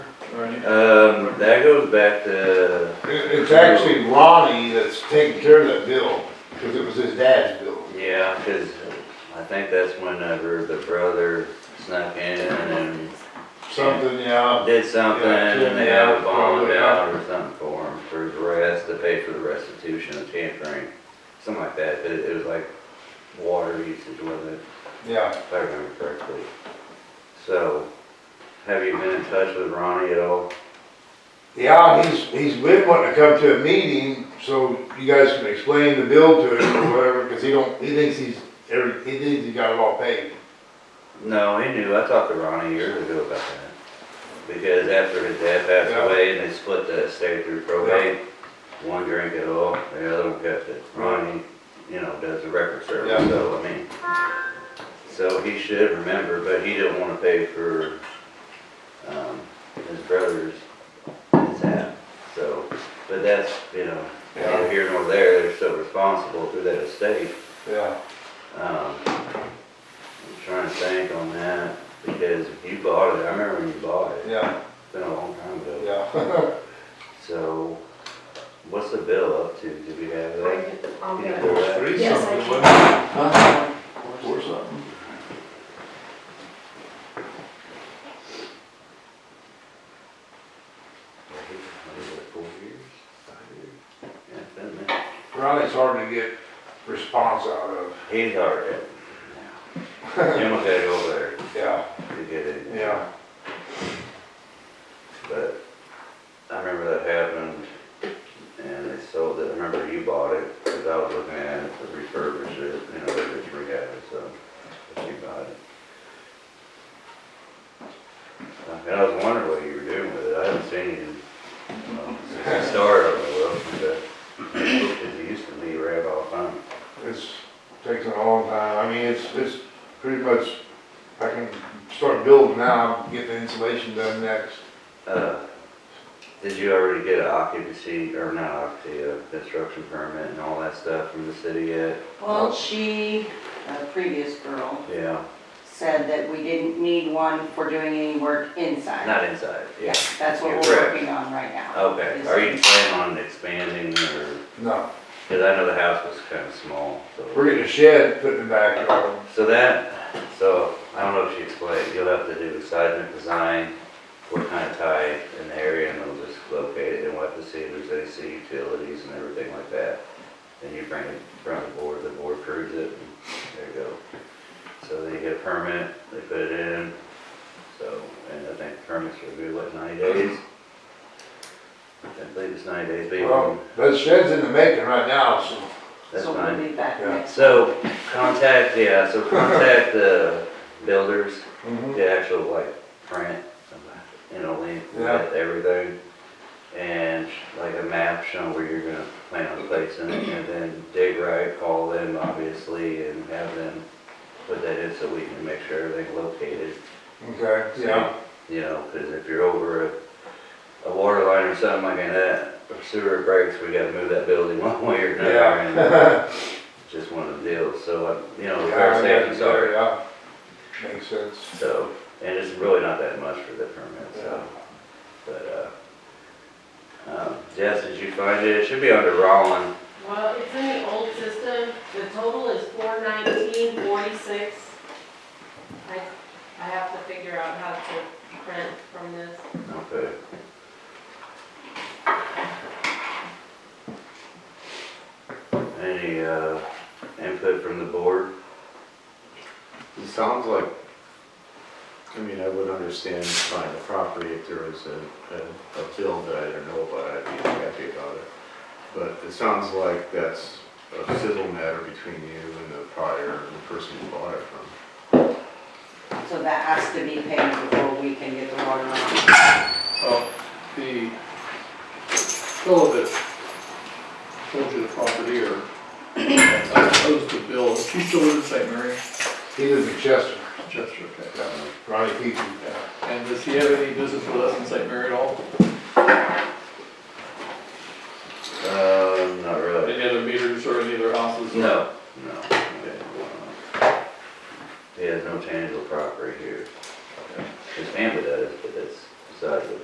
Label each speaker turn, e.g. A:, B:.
A: Bernie?
B: Um, that goes back to,
C: It- It's actually Ronnie that's taking care of that bill, because it was his dad's bill.
B: yeah, cause I think that's whenever the brother snuck in and
C: Something, yeah,
B: did something
C: Yeah,
B: and they had a bond
C: probably,
B: out or something for him, for his arrest, to pay for the restitution of tampering, something like that, it, it was like water usage, was it?
C: yeah.
B: if I remember correctly. So, have you been in touch with Ronnie at all?
C: Yeah, he's, he's been wanting to come to a meeting, so you guys can explain the bill to him or whatever, because he don't, he thinks he's, every- he thinks he got it all paid.
B: No, he knew, I talked to Ronnie years ago about that. Because after his dad passed
C: Yeah.
B: away and they split the estate through probate, one drank it all, the other one kept it. Ronnie, you know, does the record service,
C: Yeah.
B: so, I mean, so he should remember, but he didn't wanna pay for, um, his brother's, his half, so, but that's, you know, neither here nor there, they're still responsible through that estate.
C: Yeah,
B: Um, I'm trying to think on that, because you bought it, I remember when you bought it,
C: yeah,
B: it's been a long time ago.
C: yeah.
B: So, what's the bill up to, do we have that?
D: I'll get
B: Yeah.
D: it.
C: Four three
D: Yes, I
C: something,
D: can.
C: wasn't it?
A: Huh?
C: Four something.
B: Four years? Five years? Yeah, it's been a minute.
C: Ronnie's hard to get response out of,
B: He's hard at it. Jim will get over there
C: yeah,
B: to get it.
C: yeah.
B: But I remember that happened and they sold it. I remember you bought it because I was looking at it to refurbish it, you know, they just rehab it, so but you bought it. And I was wondering what you were doing with it. I haven't seen you, well, since the start of it, well, but it used to be right all the time.
C: It's, takes a long time, I mean, it's, it's pretty much, I can start building now, get the insulation done next.
B: Uh, Did you already get an occupancy, or not occupancy, a construction permit and all that stuff from the city yet?
E: Well, she, a previous girl,
B: Yeah,
E: said that we didn't need one for doing any work inside.
B: not inside, yeah.
E: Yeah, that's what
B: You're
E: we're
B: correct.
E: working on right now.
B: Okay, are you planning on expanding or,
C: No,
B: cause I know the house was kind of small, so.
C: we're getting a shed, putting it back on.
B: So that, so I don't know if she explained, you'll have to do seismic design, what kind of tie in the area and they'll just locate it and we'll have to see if there's AC utilities and everything like that. Then you bring it from the board, the board approves it, and there you go. So they get a permit, they put it in, so, and I think permits are good, what, ninety days? I believe it's ninety days, but you
C: Well, that shed's in the making right now, so,
B: That's
E: So we'll
B: fine.
E: be back
C: Yeah.
E: next.
B: So contact, yeah, so contact the builders,
C: mhm,
B: the actual like print, you know, link
C: Yeah.
B: with everything. And like a map showing where you're gonna plan on placing it and then dig right, call them obviously and have them put that in so we can make sure everything's located.
C: okay, yeah,
B: You know, cause if you're over a, a water line or something like that, or sewer breaks, we gotta move that building one way or another. and-
C: yeah.
B: just one of the deals, so, uh, you know,
C: Yeah,
B: fair safety, sorry.
C: yeah. Makes sense,
B: So, and it's really not that much for the permit, so, but, uh, um, Jess, did you find it? It should be under Rollin.
D: Well, it's in the old system, the total is four nineteen forty-six. I, I have to figure out how to print from this.
B: Okay. Any, uh, input from the board?
A: It sounds like, I mean, I would understand buying the property if there was a, a, a bill that I didn't know about, I'd be happy about it. But it sounds like that's a civil matter between you and the prior, the person you bought it from.
E: So that has to be paid before we can get the water on.
F: Uh, The fellow that sold you the property or uh, opposed the bill, is he still live in St. Mary?
C: he lives in Chester,
F: Chester, okay.
C: Ronnie Peavy, yeah.
F: And does he have any business with us in St.